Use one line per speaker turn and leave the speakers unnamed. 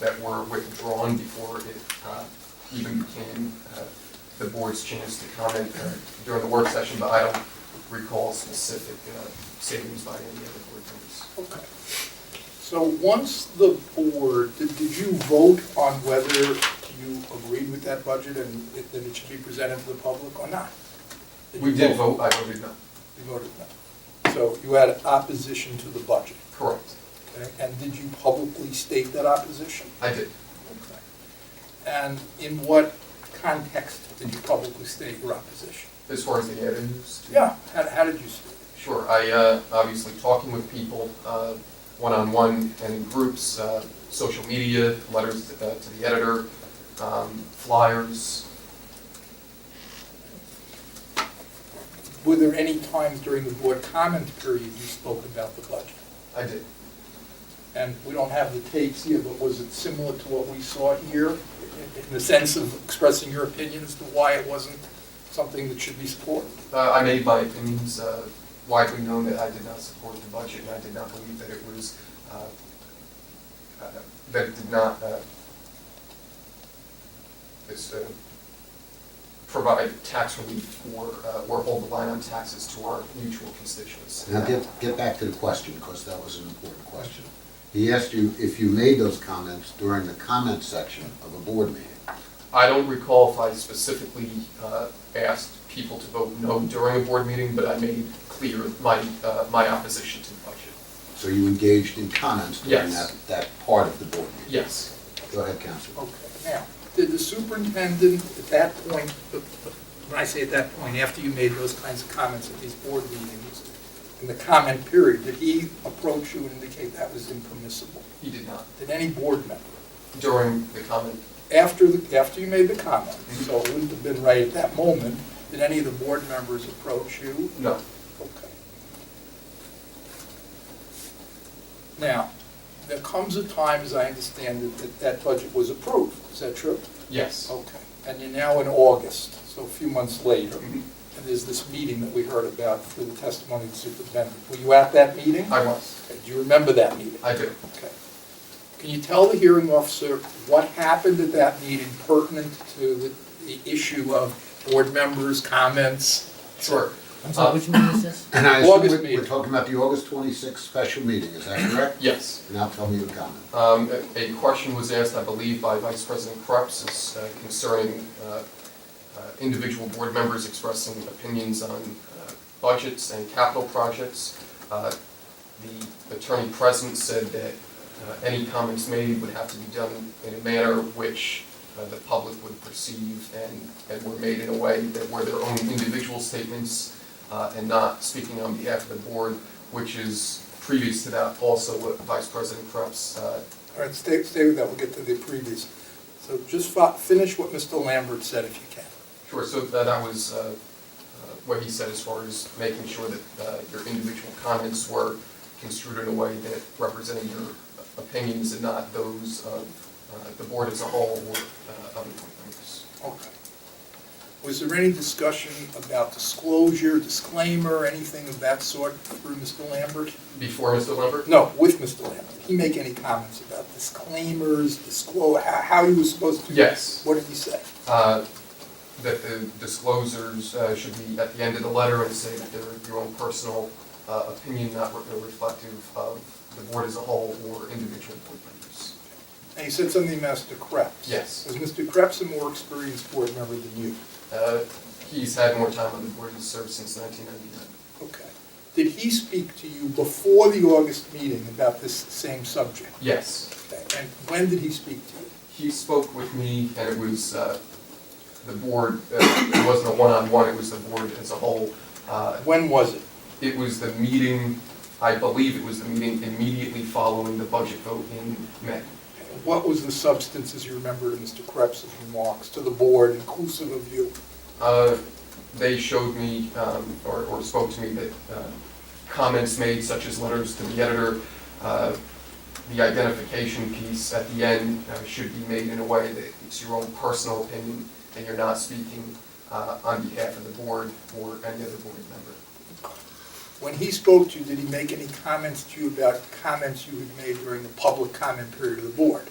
that were withdrawn before it uh, even became uh, the board's chance to comment uh, during the work session, but I don't recall specific uh, savings by any other board members.
Okay. So once the board, did, did you vote on whether you agreed with that budget and it- that it should be presented to the public or not?
We
you
did vote, I voted no.
You voted no. So you had opposition to the budget,
Correct.
okay? And did you publicly state that opposition?
I did.
Okay. And in what context did you publicly state your opposition?
As far as the avenues? to-
Yeah, how, how did you state it?
Sure, I, uh, obviously, talking with people, uh, one-on-one and in groups, uh, social media, letters uh, to the editor, um, flyers.
Were there any times during the board comment period you spoke about the budget?
I did.
And we don't have the tapes here, but was it similar to what we saw here in in the sense of expressing your opinion as to why it wasn't something that should be supported?
Uh, I made my opinions uh, widely known that I did not support the budget, and I did not believe that it was, uh, uh, that it did not uh, it's, uh, provide tax relief or, uh, or hold the line on taxes to our mutual constituents.
Now, get, get back to the question, because that was an important question. He asked you if you made those comments during the comment section of a board meeting.
I don't recall if I specifically uh, asked people to vote no during a board meeting, but I made clear my, uh, my opposition to the budget.
So you engaged in comments during
Yes.
that, that part of the board meeting.
Yes.
Go ahead, Counselor.
Okay, now, did the superintendent at that point, when I say at that point, after you made those kinds of comments at these board meetings, in the comment period, did he approach you and indicate that was impermissible?
He did not.
Did any board member?
During the comment,
After, the after you made the comment, so it wouldn't have been right at that moment, did any of the board members approach you
no.
Okay. Now, there comes a time, as I understand it, that that budget was approved, is that true?
Yes.
Okay, and you're now in August, so a few months later,
Mhm.
and there's this meeting that we heard about through the testimony of the superintendent. Were you at that meeting?
I was.
Okay, Do you remember that meeting?
I do.
Okay. Can you tell the hearing officer what happened at that meeting pertinent to the, the issue of board members' comments?
Sure.
I'm sorry, which meeting is this?
And I assume
August
we're- we're
meeting.
talking about the August twenty-sixth special meeting, is that correct?
Yes.
Now tell me your comment.
Um, a- A question was asked, I believe, by Vice President Krebs is, uh, concerning uh, uh, individual board members expressing opinions on uh, budgets and capital projects. Uh, The attorney present said that uh, any comments made would have to be done in a manner which uh, the public would perceive and, and were made in a way that were their own individual statements uh, and not speaking on behalf of the board, which is previous to that also what Vice President Krebs uh,
All right, stay, stay with that, we'll get to the previous. So just fi- finish what Mr. Lambert said if you can.
Sure, so tha- that was uh, uh, what he said as far as making sure that uh, your individual comments were construed in a way that represented your opinions and not those of uh, the board as a whole or uh, other board members.
Okay. Was there any discussion about disclosure, disclaimer, anything of that sort through Mr. Lambert?
Before Mr. Lambert?
No, with Mr. Lambert. Did he make any comments about disclaimers, disclose, how he was supposed to?
Yes.
What did he say?
Uh, That the disclosures uh, should be at the end of the letter and say that they're your own personal uh, opinion, not re- reflective of the board as a whole or individual board members.
And he said something about Mr. Krebs.
Yes.
Was Mr. Krebs a more experienced board member than you?
Uh, He's had more time on the board, he's served since 1999.
Okay. Did he speak to you before the August meeting about this same subject?
Yes,
And when did he speak to you?
he spoke with me, and it was uh, the board, uh, it wasn't a one-on-one, it was the board as a whole. Uh,
When was it?
It was the meeting, I believe it was the meeting immediately following the budget vote in May.
What was the substance, as you remember, in Mr. Krebs's remarks to the board, inclusive of you?
Uh, They showed me, um, or or spoke to me, that uh, comments made such as letters to the editor, uh, the identification piece at the end uh, should be made in a way that it's your own personal opinion, and you're not speaking uh, on behalf of the board or any other board member.
When he spoke to you, did he make any comments to you about comments you had made during the public comment period of the board?